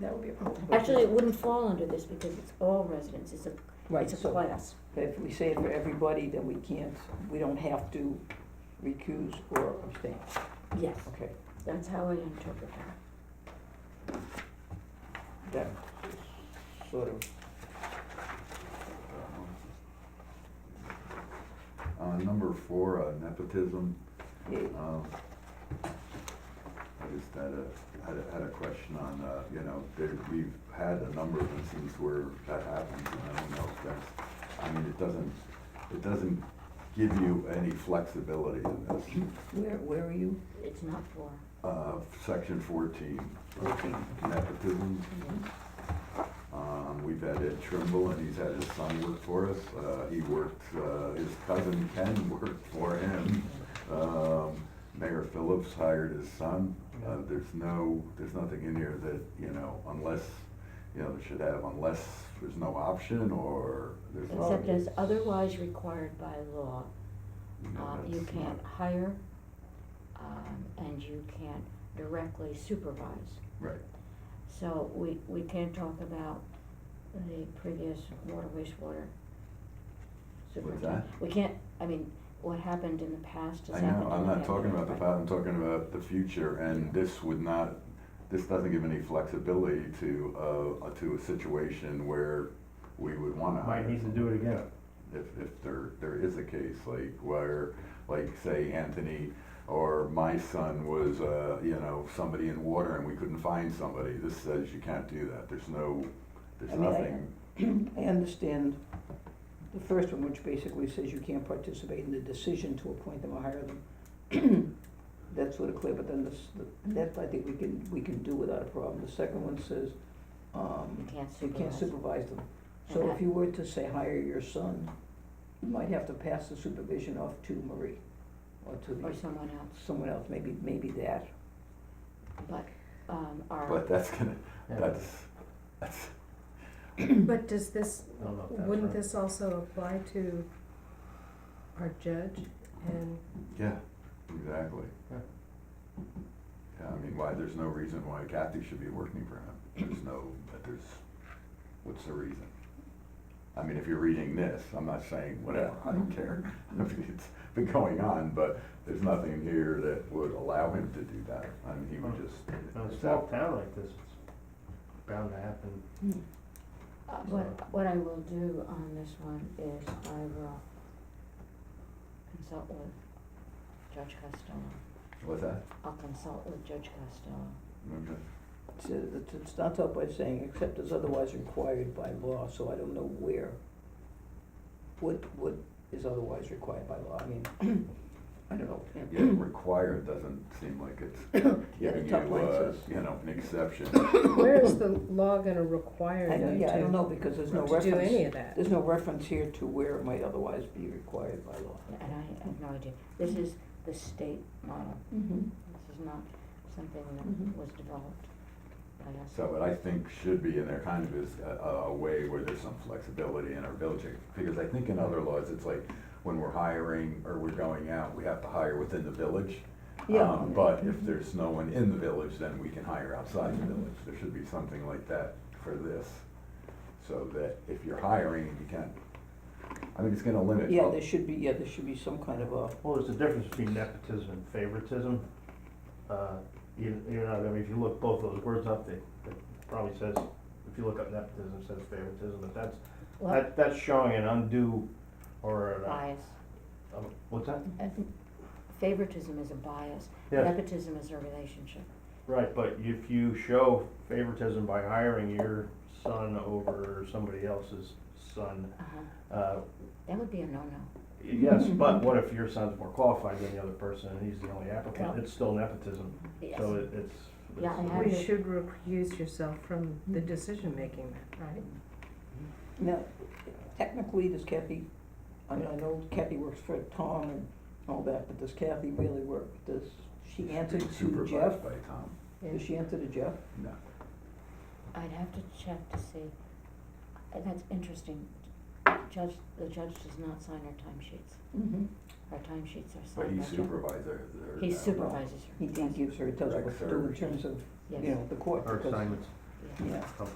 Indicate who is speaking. Speaker 1: that would be a problem.
Speaker 2: Actually, it wouldn't fall under this because it's all residents, it's a,
Speaker 3: Right,
Speaker 2: it's a
Speaker 3: so
Speaker 2: class.
Speaker 3: if we say it for everybody, then we can't, we don't have to recuse or abstain,
Speaker 2: Yes,
Speaker 3: okay?
Speaker 2: that's how I interpret that.
Speaker 3: That sort of,
Speaker 4: Um, Uh, number four, uh, nepotism,
Speaker 3: yeah,
Speaker 4: um, I just had a, had a, had a question on, uh, you know, there, we've had a number of instances where that happens, and I don't know if that's, I mean, it doesn't, it doesn't give you any flexibility in this.
Speaker 3: where, where are you?
Speaker 2: It's not for,
Speaker 4: Uh, section fourteen,
Speaker 3: Okay.
Speaker 4: nepotism, Um, we've had Ed Trimble, and he's had his son work for us. Uh, he worked, uh, his cousin Ken worked for him. Um, Mayor Phillips hired his son. Uh, there's no, there's nothing in here that, you know, unless, you know, they should have unless there's no option or there's.
Speaker 2: except
Speaker 4: nothing.
Speaker 2: as otherwise required by law, uh,
Speaker 4: know,
Speaker 2: you
Speaker 4: that's
Speaker 2: can't hire, um, and you can't directly supervise.
Speaker 4: Right.
Speaker 2: So we, we can't talk about the previous water wastewater
Speaker 4: What's
Speaker 2: superintendent.
Speaker 4: that?
Speaker 2: We can't, I mean, what happened in the past is
Speaker 4: I
Speaker 2: happened.
Speaker 4: know, I'm
Speaker 2: in
Speaker 4: not talking about the
Speaker 2: right.
Speaker 4: past, I'm talking about the future, and this would not, this doesn't give any flexibility to, uh, to a situation where we would wanna hire.
Speaker 5: Might need to do it again.
Speaker 4: If, if there, there is a case, like where, like say Anthony or my son was, uh, you know, somebody in water and we couldn't find somebody, this says you can't do that, there's no,
Speaker 3: I
Speaker 4: there's
Speaker 3: mean, I-
Speaker 4: nothing,
Speaker 3: I understand the first one, which basically says you can't participate in the decision to appoint them or hire them. That's sort of clear, but then this, the- that I think we can, we can do without a problem. The second one says,
Speaker 2: You
Speaker 3: um,
Speaker 2: can't
Speaker 3: you can't
Speaker 2: supervise.
Speaker 3: supervise them. So if you were to say hire your son, you might have to pass the supervision off to Marie or to
Speaker 2: Or
Speaker 3: the,
Speaker 2: someone else,
Speaker 3: someone else, maybe, maybe that.
Speaker 2: but, um, our,
Speaker 4: but that's gonna,
Speaker 5: Yeah.
Speaker 4: that's, that's,
Speaker 1: But does this,
Speaker 5: I don't know if that's
Speaker 1: wouldn't
Speaker 5: right.
Speaker 1: this also apply to our judge and
Speaker 4: Yeah, exactly.
Speaker 5: Yeah.
Speaker 4: Yeah, I mean, why, there's no reason why Kathy should be working for him. There's no, but there's, what's the reason? I mean, if you're reading this, I'm not saying whatever, I don't care. I mean, it's been going on, but there's nothing here that would allow him to do that. I mean, he would
Speaker 3: Oh.
Speaker 4: just.
Speaker 5: In a small town like this, it's bound to happen.
Speaker 2: hmm. uh, what, what I will do on this one is I will consult with Judge Costello.
Speaker 4: What's that?
Speaker 2: I'll consult with Judge Costello.
Speaker 4: Okay.
Speaker 3: It says- It it starts out by saying, except as otherwise required by law, so I don't know where. What, what is otherwise required by law? I mean, I don't know.
Speaker 4: Yeah, required doesn't seem like it's
Speaker 3: Yeah, the
Speaker 4: giving you,
Speaker 3: top line
Speaker 4: uh,
Speaker 3: says-
Speaker 4: you know, an exception.
Speaker 1: where is the law gonna require
Speaker 3: I don't,
Speaker 1: you
Speaker 3: yeah, I don't
Speaker 1: to,
Speaker 3: know, because there's no
Speaker 1: to do any
Speaker 3: reference,
Speaker 1: of that?
Speaker 3: there's no reference here to where it might otherwise be required by law.
Speaker 2: And I have no idea. This is the state model.
Speaker 3: Mm-hmm.
Speaker 2: This is not something
Speaker 3: Mhm.
Speaker 2: that was developed by us.
Speaker 4: So what I think should be in there kind of is a, a way where there's some flexibility in our village, because I think in other laws, it's like when we're hiring or we're going out, we have to hire within the village.
Speaker 3: Yeah. Mm-hmm.
Speaker 4: Um, But if there's no one in the village, then we can hire outside the village. There should be something like that for this, so that if you're hiring, you can, I mean, it's gonna limit.
Speaker 3: Yeah, there should be, yeah, there should be some kind of a,
Speaker 5: Well, there's a difference between nepotism and favoritism. Uh, you, you know, I mean, if you look both those words up, they, it probably says, if you look up nepotism, it says favoritism, but that's,
Speaker 2: Well,
Speaker 5: that, that's showing an undue or, an, uh,
Speaker 2: bias.
Speaker 5: um, what's that?
Speaker 2: Uh, Favoritism is a bias.
Speaker 5: Yeah,
Speaker 2: Nepotism is a relationship.
Speaker 5: right, but if you show favoritism by hiring your son over somebody else's son,
Speaker 2: Uh-huh.
Speaker 5: uh,
Speaker 2: That would be a no-no.
Speaker 5: Yes,
Speaker 2: Mm-hmm.
Speaker 5: but what if your son's more qualified than the other person and he's the only applicant?
Speaker 2: Well-
Speaker 5: It's still nepotism,
Speaker 2: Yes.
Speaker 5: so it- it's.
Speaker 2: Yeah, I
Speaker 5: it's-
Speaker 2: have-
Speaker 1: You should recuse yourself from the
Speaker 3: Mm-hmm.
Speaker 1: decision-making then, right?
Speaker 3: now, technically, does Kathy, I mean, I know Kathy works for Tom and all that, but does Kathy really work, does she answer
Speaker 4: Being
Speaker 3: to Jeff?
Speaker 4: Supervised by Tom,
Speaker 3: Does she answer to Jeff?
Speaker 4: no.
Speaker 2: I'd have to check to see. Uh, That's interesting. Judge, the judge does not sign her timesheets.
Speaker 3: Mm-hmm.
Speaker 2: Her timesheets are
Speaker 4: But
Speaker 3: Oh,
Speaker 2: signed by
Speaker 4: he's
Speaker 2: Jeff.
Speaker 4: supervisor. there
Speaker 2: He
Speaker 4: now.
Speaker 2: supervises her.
Speaker 3: He he gives her, he tells her what to do in terms of,
Speaker 2: Yes,
Speaker 3: you know, the court,
Speaker 5: Or
Speaker 3: because
Speaker 5: assignments.
Speaker 2: yes.
Speaker 3: yeah.